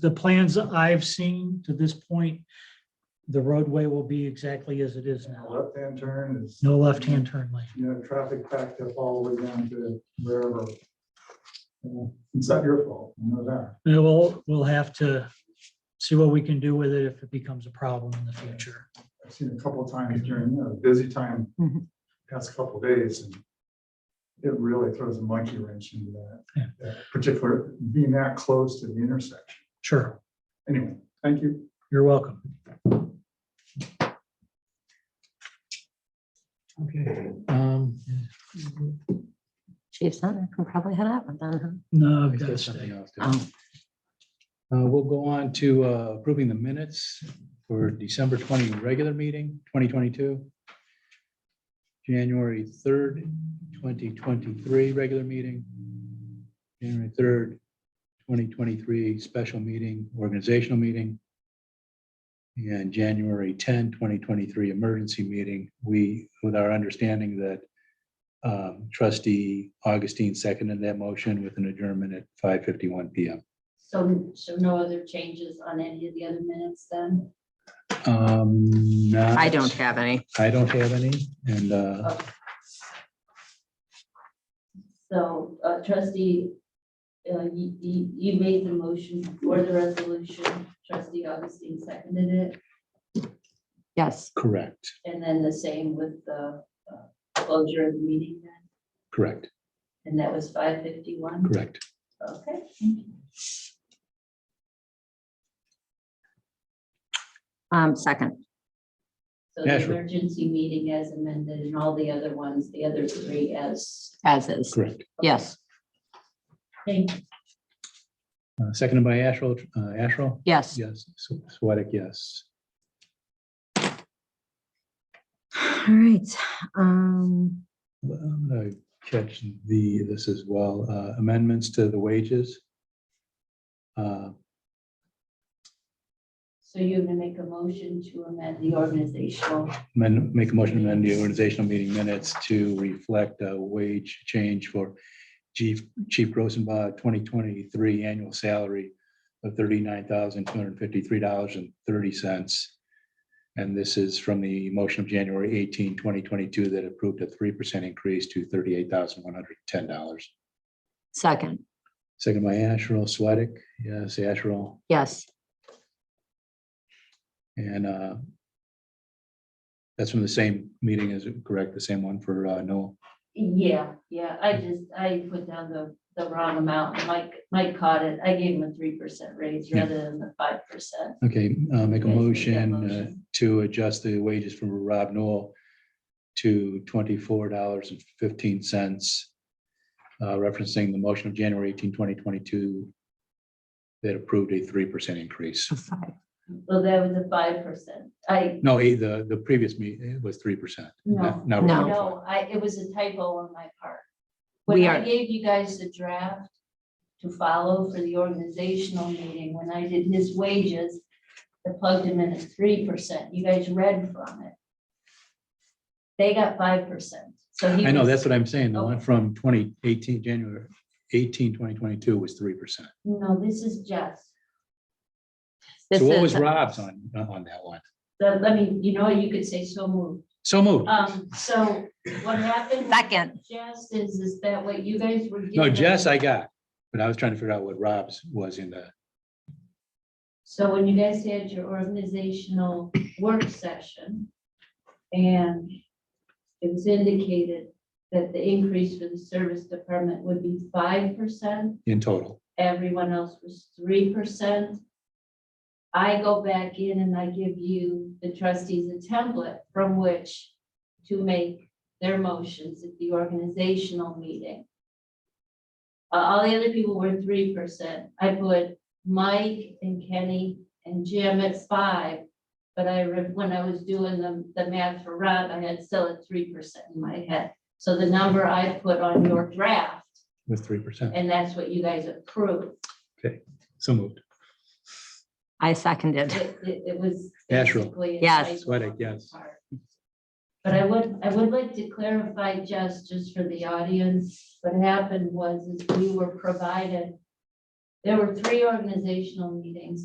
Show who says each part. Speaker 1: the plans I've seen to this point, the roadway will be exactly as it is now.
Speaker 2: Left-hand turn is.
Speaker 1: No left-hand turn lane.
Speaker 2: You know, traffic packed up all the way down to wherever. Uh, It's not your fault, you know that.
Speaker 1: And we'll, we'll have to see what we can do with it if it becomes a problem in the future.
Speaker 2: I've seen a couple of times during, you know, busy time,
Speaker 3: Mhm.
Speaker 2: past couple of days, and it really throws a monkey wrench into
Speaker 1: Yeah.
Speaker 2: that, that particular, being that close to the intersection.
Speaker 1: Sure,
Speaker 2: Anyway, thank you.
Speaker 1: you're welcome.
Speaker 3: Okay. um,
Speaker 4: Chief Senator can probably head out with them.
Speaker 1: No, I've
Speaker 3: I've
Speaker 1: got to
Speaker 3: got
Speaker 1: stay.
Speaker 3: something else.
Speaker 4: huh? Oh,
Speaker 3: Uh, We'll go on to uh, approving the minutes for December 20 regular meeting, 2022. January 3rd, 2023 regular meeting. January 3rd, 2023 special meeting, organizational meeting. And January 10, 2023 emergency meeting. We, with our understanding that um, trustee Augustine seconded that motion with an adjournment at 5:51 PM.
Speaker 5: So, so no other changes on any of the other minutes then?
Speaker 3: Um, not-
Speaker 4: I don't have any.
Speaker 3: I don't have any, and, uh,
Speaker 5: So uh, trustee, uh, you, you you made the motion for the resolution, trustee Augustine seconded it,
Speaker 4: Yes,
Speaker 3: correct,
Speaker 5: and then the same with the uh, closure of the meeting then,
Speaker 3: correct,
Speaker 5: and that was five fifty-one?
Speaker 3: correct.
Speaker 5: Okay. thank you.
Speaker 4: um, second.
Speaker 5: So
Speaker 3: Yeah,
Speaker 5: the
Speaker 3: sure.
Speaker 5: emergency meeting as amended and all the other ones, the other three as,
Speaker 4: As is.
Speaker 3: Correct.
Speaker 4: Yes,
Speaker 5: thank you.
Speaker 3: Uh, Seconded by Asherle, uh, Asherle?
Speaker 4: yes.
Speaker 3: Yes, Sw- Sweattick, yes.
Speaker 4: All right. Um,
Speaker 3: I'm gonna catch the, this as well, uh, amendments to the wages. Uh,
Speaker 5: So you're gonna make a motion to amend the organizational
Speaker 3: amend- Make a motion to amend the organizational meeting minutes to reflect a wage change for Chief, Chief Rosenbaugh, twenty twenty-three annual salary of thirty-nine thousand, two hundred and fifty-three dollars and thirty cents. And this is from the motion of January 18, 2022, that approved a three percent increase to thirty-eight thousand, one hundred and ten dollars.
Speaker 4: second,
Speaker 3: Second by Asherle Sweattick, yes, Asherle,
Speaker 4: yes,
Speaker 3: and uh, that's from the same meeting, is it correct? The same one for uh, Noel?
Speaker 5: Yeah, yeah, I just, I put down the, the wrong amount, Mike, Mike caught it, I gave him a three percent raise
Speaker 3: Yeah.
Speaker 5: rather than the five percent.
Speaker 3: Okay, uh, make a
Speaker 5: Yes, make that
Speaker 3: motion uh,
Speaker 5: motion.
Speaker 3: to adjust the wages for Rob Noel to twenty-four dollars and fifteen cents, uh, referencing the motion of January 18, 2022, that approved a three percent increase.
Speaker 4: to five.
Speaker 5: Well, that was a five percent, I,
Speaker 3: No, eh, the, the previous meeting was three percent.
Speaker 5: no,
Speaker 4: No.
Speaker 5: no, I, it was a typo on my part.
Speaker 4: We
Speaker 5: When I
Speaker 4: are-
Speaker 5: gave you guys the draft to follow for the organizational meeting, when I did his wages, I plugged him in at three percent, you guys read from it. They got five percent, so he.
Speaker 3: I know,
Speaker 5: was-
Speaker 3: that's what I'm saying. The one
Speaker 5: Oh.
Speaker 3: from twenty eighteen, January 18, 2022, was three percent.
Speaker 5: No, this is just.
Speaker 4: This
Speaker 3: So what
Speaker 4: is-
Speaker 3: was Rob's on, on that one?
Speaker 5: The, let me, you know, you could say so moved.
Speaker 3: So moved.
Speaker 5: Um, so what happened?
Speaker 4: Second,
Speaker 5: Jess is, is that what you guys were?
Speaker 3: No,
Speaker 5: given?
Speaker 3: Jess, I got, but I was trying to figure out what Rob's was in the
Speaker 5: So when you guys had your organizational work session and it was indicated that the increase for the service department would be five percent
Speaker 3: in total.
Speaker 5: everyone else was three percent. I go back in and I give you, the trustees, a template from which to make their motions at the organizational meeting. Uh, All the other people were three percent. I put Mike and Kenny and Jim at five. But I, re- when I was doing the, the math for Rob, I had still at three percent in my head. So the number I put on your draft,
Speaker 3: With three percent.
Speaker 5: and that's what you guys approved.
Speaker 3: So moved.
Speaker 4: I seconded.
Speaker 5: It, it, it was.
Speaker 3: Asherle.
Speaker 5: basically a
Speaker 4: Yes.
Speaker 5: typo
Speaker 3: Sweattick,
Speaker 5: on my
Speaker 3: yes.
Speaker 5: part. But I would, I would like to clarify just, just for the audience, what happened was is we were provided There were three organizational meetings